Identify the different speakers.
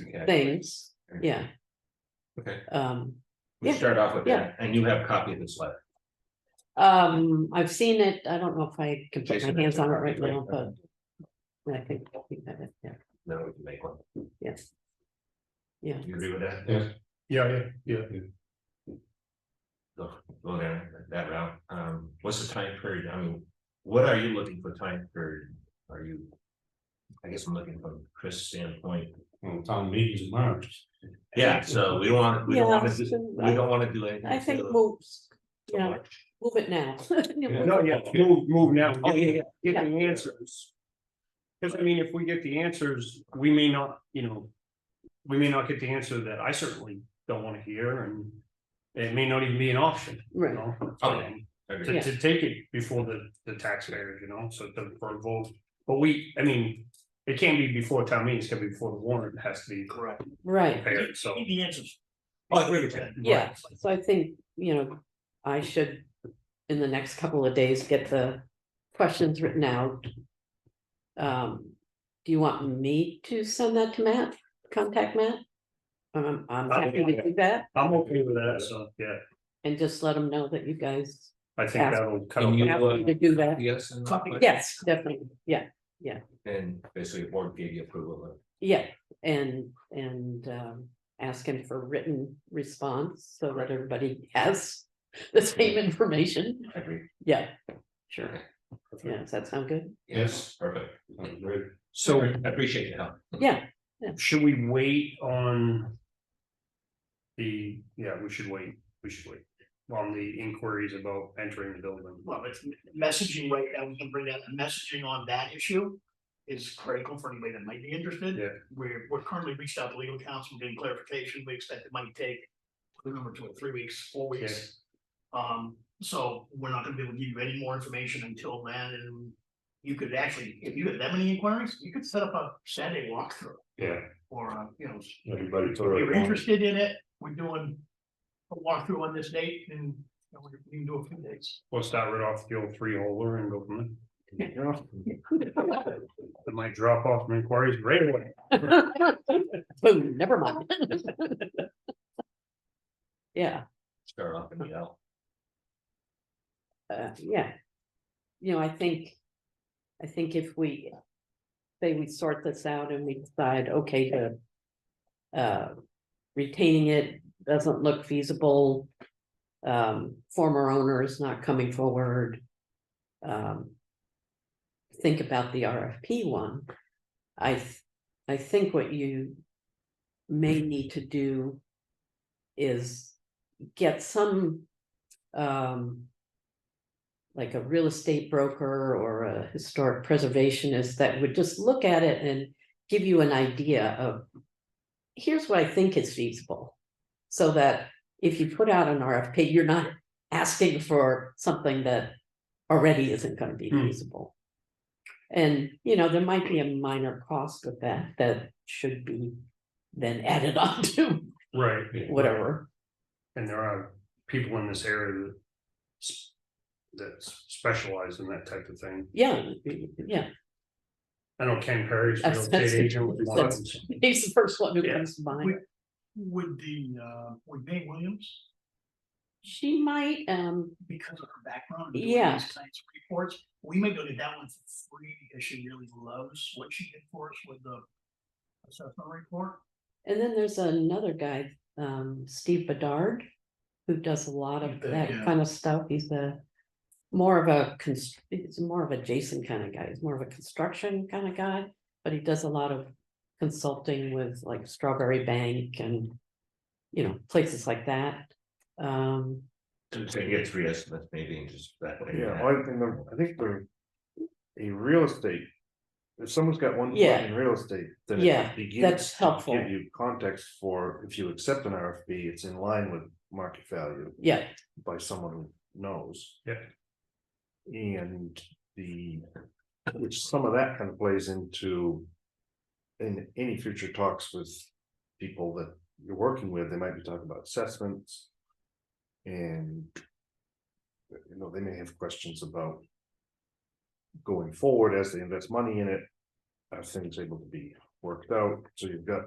Speaker 1: Okay,
Speaker 2: things, yeah,
Speaker 1: okay.
Speaker 2: um,
Speaker 1: We
Speaker 2: Yeah.
Speaker 1: start off with
Speaker 2: Yeah.
Speaker 1: that, and you have a copy of this letter.
Speaker 2: um, I've seen it, I don't know if I can put
Speaker 1: Jason,
Speaker 2: my hands on it right now,
Speaker 1: okay.
Speaker 2: but. I think, I think that, it- yeah,
Speaker 1: Now we can make one.
Speaker 2: yes. Yeah,
Speaker 1: You agree with that?
Speaker 3: Yes. Yeah, yeah, yeah.
Speaker 1: Go, go down that route. Um, what's the time period? I mean, what are you looking for time period? Are you? I guess I'm looking from Chris' standpoint.
Speaker 3: Well, town meetings in March.
Speaker 1: Yeah, so we don't want, we don't
Speaker 2: Yeah,
Speaker 1: want to,
Speaker 2: so
Speaker 1: we don't want to do anything.
Speaker 2: I think
Speaker 1: till-
Speaker 2: move,
Speaker 1: till
Speaker 2: yeah,
Speaker 1: March.
Speaker 2: move it now.
Speaker 3: No, yeah, move, move now.
Speaker 1: Oh, yeah, yeah.
Speaker 3: Get the answers. Cause I mean, if we get the answers, we may not, you know. We may not get the answer that I certainly don't wanna hear and. It may not even be an option, you
Speaker 2: Right,
Speaker 3: know,
Speaker 1: Okay.
Speaker 3: to,
Speaker 1: Agreed.
Speaker 3: to take it before the, the taxpayers, you know, so the, for a vote. But we, I mean, it can't be before town meeting, it's gonna be before the warrant has to be correct,
Speaker 2: right,
Speaker 3: prepared, so.
Speaker 4: Need the answers.
Speaker 1: Oh, I agree with that.
Speaker 2: yeah, so I think, you know, I should. In the next couple of days, get the questions written out. Um, do you want me to send that to Matt, contact Matt? Um, I'm happy to do that.
Speaker 3: I'm okay with that, so, yeah,
Speaker 2: And just let them know that you guys
Speaker 3: I think that'll cut.
Speaker 1: Can
Speaker 3: off-
Speaker 1: you,
Speaker 2: asked me to do that.
Speaker 1: Yes. and-
Speaker 4: Copy.
Speaker 2: Yes, definitely, yeah,
Speaker 1: And basically, board gave you approval of.
Speaker 2: yeah, and, and, um, ask him for written response so that everybody has the same information.
Speaker 1: Agree.
Speaker 2: Yeah, sure. Yeah, does that sound good?
Speaker 3: Yes.
Speaker 1: Perfect.
Speaker 3: Great.
Speaker 1: So
Speaker 3: So
Speaker 1: I appreciate your help.
Speaker 2: Yeah,
Speaker 3: should we wait on? The, yeah, we should wait, we should wait on the inquiries about entering the building.
Speaker 4: Well, it's messaging right now, we can bring that messaging on that issue is critical for anybody that might be interested.
Speaker 3: Yeah.
Speaker 4: We're, we're currently reached out to legal counsel, getting clarification. We expect it might take, remember, two or three weeks, four weeks. Um, so we're not gonna be able to give you any more information until then. And you could actually, if you had that many inquiries, you could set up a Saturday walkthrough
Speaker 3: Yeah.
Speaker 4: or, a, you know, s-
Speaker 3: Everybody's
Speaker 4: If you're interested in it, we're doing a walkthrough on this date and you know, we can do a few dates.
Speaker 3: We'll start right off the old three holer and go from there. You know, It might drop off from inquiries right away.
Speaker 2: boom, never mind. Yeah,
Speaker 1: Start off in the L.
Speaker 2: uh, yeah. You know, I think, I think if we say we sort this out and we decide, okay, the uh, retaining it doesn't look feasible. Um, former owner is not coming forward. Um, think about the RFP one. I, th- I think what you may need to do is get some, um, like a real estate broker or a historic preservationist that would just look at it and give you an idea of, here's what I think is feasible. So that if you put out an RFP, you're not asking for something that already isn't gonna be
Speaker 3: Hmm.
Speaker 2: feasible. And, you know, there might be a minor cost with that, that should be then added on to
Speaker 3: Right.
Speaker 2: whatever.
Speaker 3: And there are people in this area that. s- That specialize in that type of thing.
Speaker 2: Yeah, yeah,
Speaker 3: I know Ken Perry's real
Speaker 2: That's-
Speaker 3: estate
Speaker 2: that's-
Speaker 3: agent. was one of them.
Speaker 2: he's the first one who
Speaker 3: Yeah.
Speaker 2: comes to mind.
Speaker 4: Would the, uh, would Mae Williams,
Speaker 2: She might, um,
Speaker 4: because of her background. in doing
Speaker 2: Yeah.
Speaker 4: these kinds of Reports, we may go to that one for free because she really loves what she did for us with the assessment report.
Speaker 2: and then there's another guy, um, Steve Bedard, who does a lot of
Speaker 4: Yeah,
Speaker 2: that
Speaker 4: yeah.
Speaker 2: kind of stuff. He's a more of a, cons- he's more of a Jason kind of guy. He's more of a construction kind of guy, but he does a lot of consulting with like Strawberry Bank and, you know, places like that. Um,
Speaker 1: So you get three estimates maybe and just that way.
Speaker 5: Yeah, well, I think, the- I think the, a real estate, if someone's got one foot
Speaker 2: Yeah.
Speaker 5: in real estate, then. it
Speaker 2: Yeah,
Speaker 5: begins
Speaker 2: that's
Speaker 5: to
Speaker 2: helpful.
Speaker 5: Give you context for, if you accept an RFP, it's in line with market value
Speaker 2: yeah,
Speaker 5: by someone who knows.
Speaker 3: Yeah.
Speaker 5: And the, which some of that kind of plays into. In any future talks with people that you're working with, they might be talking about assessments. And. You know, they may have questions about. Going forward as they invest money in it. Are things able to be worked out? So you've got